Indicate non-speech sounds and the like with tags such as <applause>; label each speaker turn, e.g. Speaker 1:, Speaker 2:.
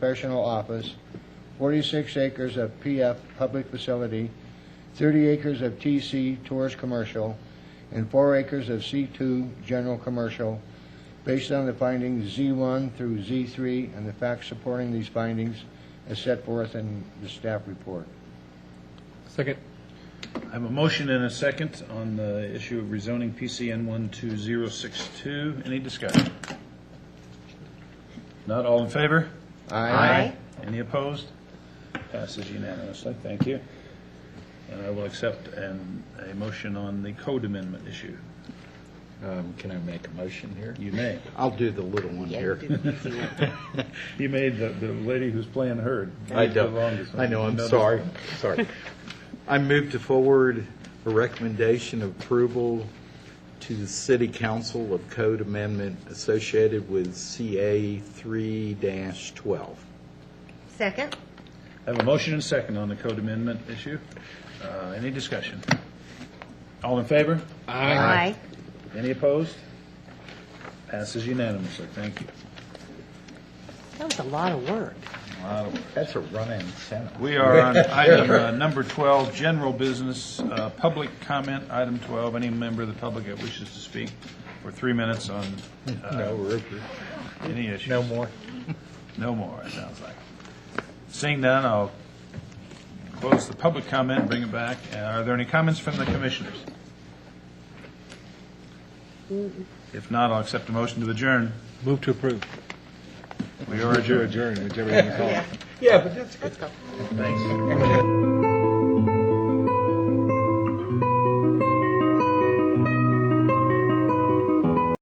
Speaker 1: professional office, 46 acres of PF public facility, 30 acres of TC tourist commercial, and 4 acres of C2 general commercial, based on the findings Z1 through Z3 and the facts supporting these findings as set forth in the staff report.
Speaker 2: Second.
Speaker 3: I have a motion and a second on the issue of rezoning PCN 12062. Any discussion? Not all in favor?
Speaker 1: Aye.
Speaker 3: Any opposed? Passes unanimously. Thank you. And I will accept an, a motion on the code amendment issue.
Speaker 4: Um, Can I make a motion here?
Speaker 3: You may.
Speaker 4: I'll do the little one here.
Speaker 3: You made the, the lady who's playing herd.
Speaker 4: I
Speaker 3: Who's the
Speaker 4: don't,
Speaker 3: longest one?
Speaker 4: I know, I'm
Speaker 3: Notice-
Speaker 4: sorry, sorry. I move to forward a recommendation of approval to the City Council of Code Amendment associated with CA 3-12.
Speaker 5: Second?
Speaker 3: I have a motion and a second on the code amendment issue. Uh, Any discussion? All in favor?
Speaker 5: Aye.
Speaker 3: Any opposed? Passes unanimously. Thank you.
Speaker 5: That was a lot of work.
Speaker 4: That's a running sentence.
Speaker 3: We are
Speaker 4: <laughs>
Speaker 3: on item uh, number 12, general business, uh, public comment, item 12. Any member of the public that wishes to speak for three minutes on
Speaker 4: No,
Speaker 3: uh,
Speaker 4: Rupert.
Speaker 3: any issue.
Speaker 4: No more.
Speaker 3: No more, it sounds like. Seeing none, I'll close the public comment, bring it back. Uh, Are there any comments from the commissioners? If not, I'll accept a motion to adjourn.
Speaker 2: Move to approve.
Speaker 3: We are adjourned.
Speaker 2: Adjourn, whichever you want to call it.
Speaker 4: Yeah, but that's
Speaker 3: Thanks.